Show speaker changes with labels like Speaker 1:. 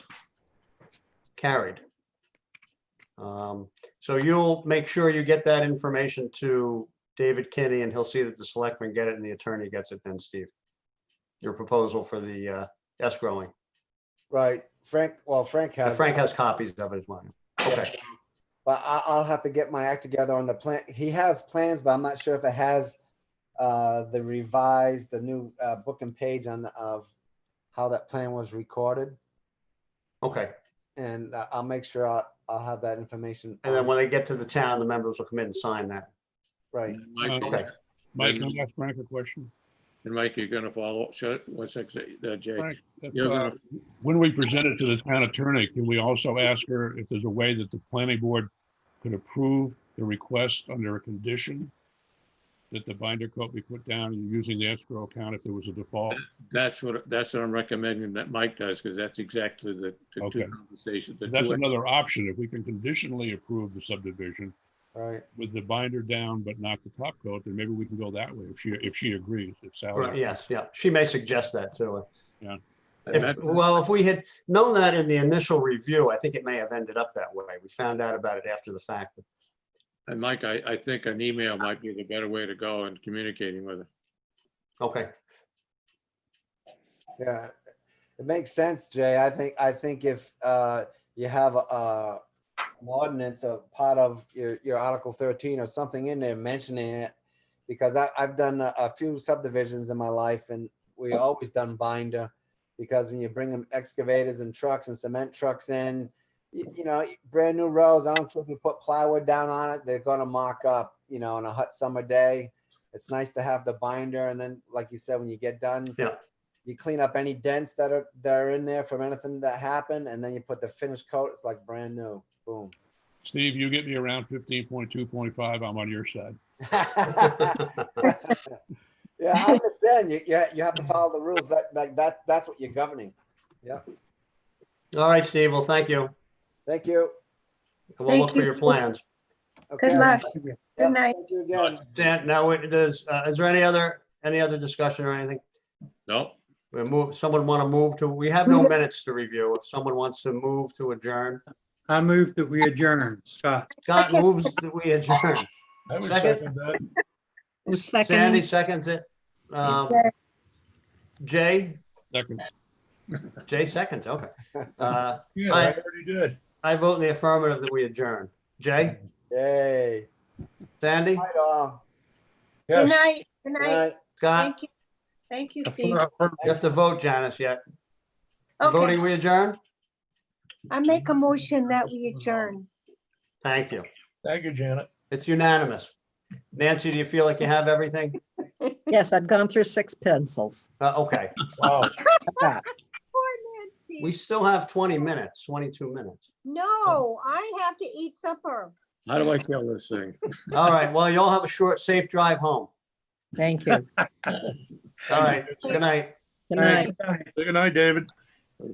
Speaker 1: Carried. Um, So you'll make sure you get that information to David Kinney, and he'll see that the selectman get it and the attorney gets it then, Steve. Your proposal for the uh, escrowing.
Speaker 2: Right, Frank, well, Frank
Speaker 1: And
Speaker 2: has.
Speaker 1: Frank has copies of it as well. Okay,
Speaker 2: But I, I'll have to get my act together on the plan. He has plans, but I'm not sure if it has uh, the revised, the new uh, book and page on, of how that plan was recorded.
Speaker 1: okay.
Speaker 2: And I- I'll make sure I'll, I'll have that information.
Speaker 1: And then
Speaker 2: on-
Speaker 1: when they get to the town, the members will come in and sign that.
Speaker 2: Right,
Speaker 3: Michael,
Speaker 1: Okay.
Speaker 4: Mike, can I ask Frank a question?
Speaker 3: and Mike, you're gonna follow, shut, one sec, uh, Jay.
Speaker 4: Frank, if,
Speaker 3: You're
Speaker 4: uh,
Speaker 3: gonna,
Speaker 4: When we present it to the town attorney, can we also ask her if there's a way that the planning board could approve the request under a condition that the binder coat be put down using the escrow account if there was a default?
Speaker 3: that's what, that's what I'm recommending that Mike does, because that's exactly the, the
Speaker 4: Okay.
Speaker 3: two conversations. the
Speaker 4: That's
Speaker 3: two-
Speaker 4: another option. If we can conditionally approve the subdivision
Speaker 2: right.
Speaker 4: with the binder down but not the top coat, then maybe we can go that way if she, if she agrees, if
Speaker 1: Right,
Speaker 4: Sally.
Speaker 1: Yes, yeah, she may suggest that to her.
Speaker 3: and
Speaker 1: If,
Speaker 3: that-
Speaker 1: well, if we had known that in the initial review, I think it may have ended up that way. We found out about it after the fact.
Speaker 3: And Mike, I, I think an email might be the better way to go in communicating with her.
Speaker 1: Okay,
Speaker 2: Yeah, it makes sense, Jay. I think, I think if uh, you have a, an ordinance of part of your, your Article thirteen or something in there mentioning it, because I, I've done a, a few subdivisions in my life and we always done binder. Because when you bring them excavators and trucks and cement trucks in, you, you know, brand new roads, I don't care if you put plywood down on it, they're gonna mark up, you know, on a hot summer day. It's nice to have the binder and then, like you said, when you get done.
Speaker 1: Yeah.
Speaker 2: You clean up any dents that are, that are in there from anything that happened and then you put the finished coat, it's like brand new, boom.
Speaker 4: Steve, you get me around fifteen point two point five, I'm on your side.
Speaker 2: Yeah, I understand. You, you, you have to follow the rules. That, like, that, that's what you're governing.
Speaker 1: all right, Steve, well, thank you.
Speaker 2: Thank you.
Speaker 1: And we'll look
Speaker 5: Thank
Speaker 1: for
Speaker 5: you.
Speaker 1: your plans.
Speaker 2: Okay.
Speaker 5: luck.
Speaker 2: Yep,
Speaker 5: Good night.
Speaker 2: Thank you again.
Speaker 1: Dan, now, it does, uh, is there any other, any other discussion or anything?
Speaker 3: No,
Speaker 1: We move, someone want to move to, we have
Speaker 5: Mm-hmm.
Speaker 1: no minutes to review. If someone wants to move to adjourn,
Speaker 6: I move that we adjourn. Scott,
Speaker 1: Scott moves that we adjourn.
Speaker 7: I would
Speaker 1: Second?
Speaker 7: second that.
Speaker 1: Sandy seconds it. Um, Jay,
Speaker 4: Second,
Speaker 1: Jay seconds, okay. Uh,
Speaker 7: Yeah,
Speaker 1: Aye.
Speaker 7: I already did.
Speaker 1: I vote in the affirmative that we adjourn. Jay,
Speaker 2: Yay.
Speaker 1: Sandy,
Speaker 2: Night all.
Speaker 7: Yes,
Speaker 5: Good night, good night.
Speaker 2: Night.
Speaker 1: Scott,
Speaker 5: Thank you. Thank you, Steve.
Speaker 4: I
Speaker 1: you have to vote Janice yet.
Speaker 5: Okay,
Speaker 1: Voting we adjourn?
Speaker 5: I make a motion that we adjourn.
Speaker 1: Thank you.
Speaker 7: thank you, Janet.
Speaker 1: It's unanimous. Nancy, do you feel like you have everything?
Speaker 8: Yes, I've gone through six pencils.
Speaker 1: Uh, okay,
Speaker 2: Oh.
Speaker 7: Wow.
Speaker 5: Poor
Speaker 1: we
Speaker 5: Nancy.
Speaker 1: still have 20 minutes, 22 minutes.
Speaker 5: No, I have to eat supper.
Speaker 3: how do I kill this thing?
Speaker 1: All right, well, y'all have a short, safe drive home.
Speaker 8: Thank you. Good
Speaker 1: All right, good night.
Speaker 8: night.
Speaker 7: Good night, David.